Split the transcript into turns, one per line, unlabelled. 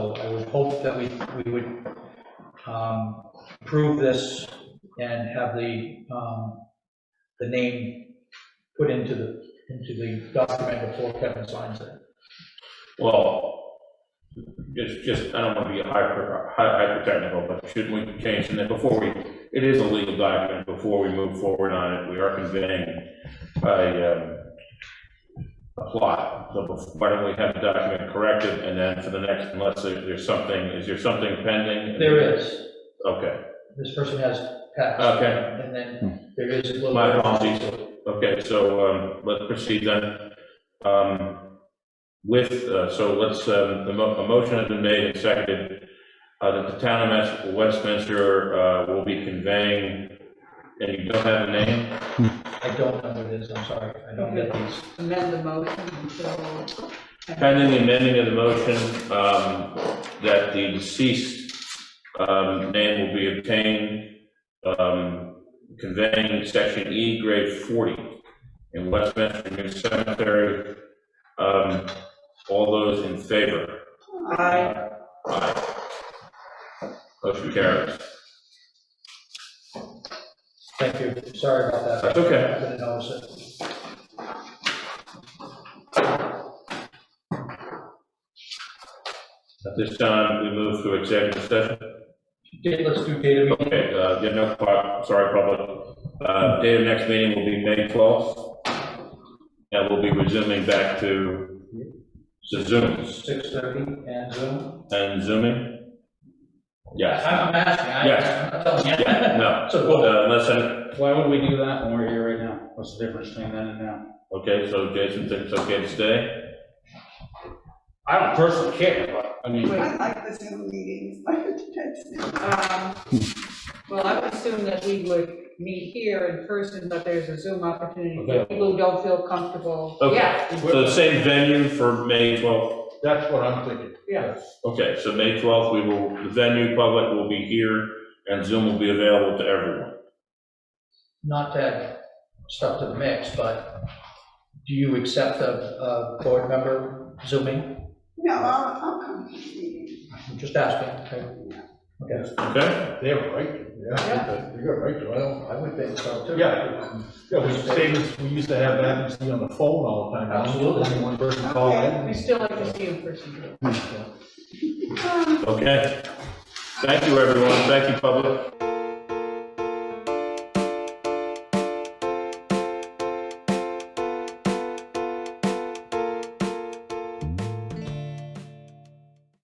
hope that we, we would um, approve this and have the, um, the name put into the, into the document before Kevin signs it.
Well, it's just, I don't want to be hyper, hy- hyper-technical, but shouldn't we change in that before we, it is a legal document, before we move forward on it, we are conveying a, um, a plot, so bef- why don't we have the document corrected, and then for the next, unless there- there's something, is there something pending?
There is,
Okay,
this person has passed.
Okay. Hmm.
And then there is a little.
My apologies. okay, so, um, let's proceed then. Um, with, uh, so let's, um, the mo- a motion has been made and seconded, uh, that the town of Mas- Westminster, uh, will be conveying, and you don't have a name?
I don't know what it is, I'm sorry, I don't get these.
amend the motion until.
Pending the amending of the motion, um, that the deceased, um, name will be obtained, um, conveying section E grade forty in Westminster New Cemetery. Um, all those in favor?
Aye.
Aye. Motion carries.
Thank you, sorry about that.
That's okay.
I didn't notice it.
At this time, we move to executive session.
Okay, let's do data meeting.
Okay, uh, yeah, no, pub- sorry, public. Uh, date of next meeting will be May twelfth. And we'll be resuming back to to Zooms
six thirty and Zoom?
and Zooming. Yes,
I'm asking,
Yes.
I- I'm telling you.
yeah, no,
So,
uh, unless, I-
Why would we do that when we're here right now? What's the difference between then and now?
okay, so Jason thinks it's okay to stay.
I don't personally care, but, I mean,
I like the Zoom meetings,
Um, Well, I would assume that we would meet here in person, but there's a Zoom opportunity for people who don't feel comfortable.
Okay.
Yeah,
So same venue for May twelfth.
that's what I'm thinking.
yeah.
Okay, so May twelfth, we will, the venue public will be here and Zoom will be available to everyone.
not to add stuff to the mix, but do you accept a, a board member zooming?
No, I'll, I'll come to the meeting.
I'm just asking. okay?
Okay,
They have a right, to, yeah, they got a right to, I don't, I would think so too.
Yeah.
Yeah, we, saved- we used to have that, you see on the phone all the time.
Absolutely.
Only One person called in.
We still like to see in person.
okay. Thank you, everyone. Thank you, public.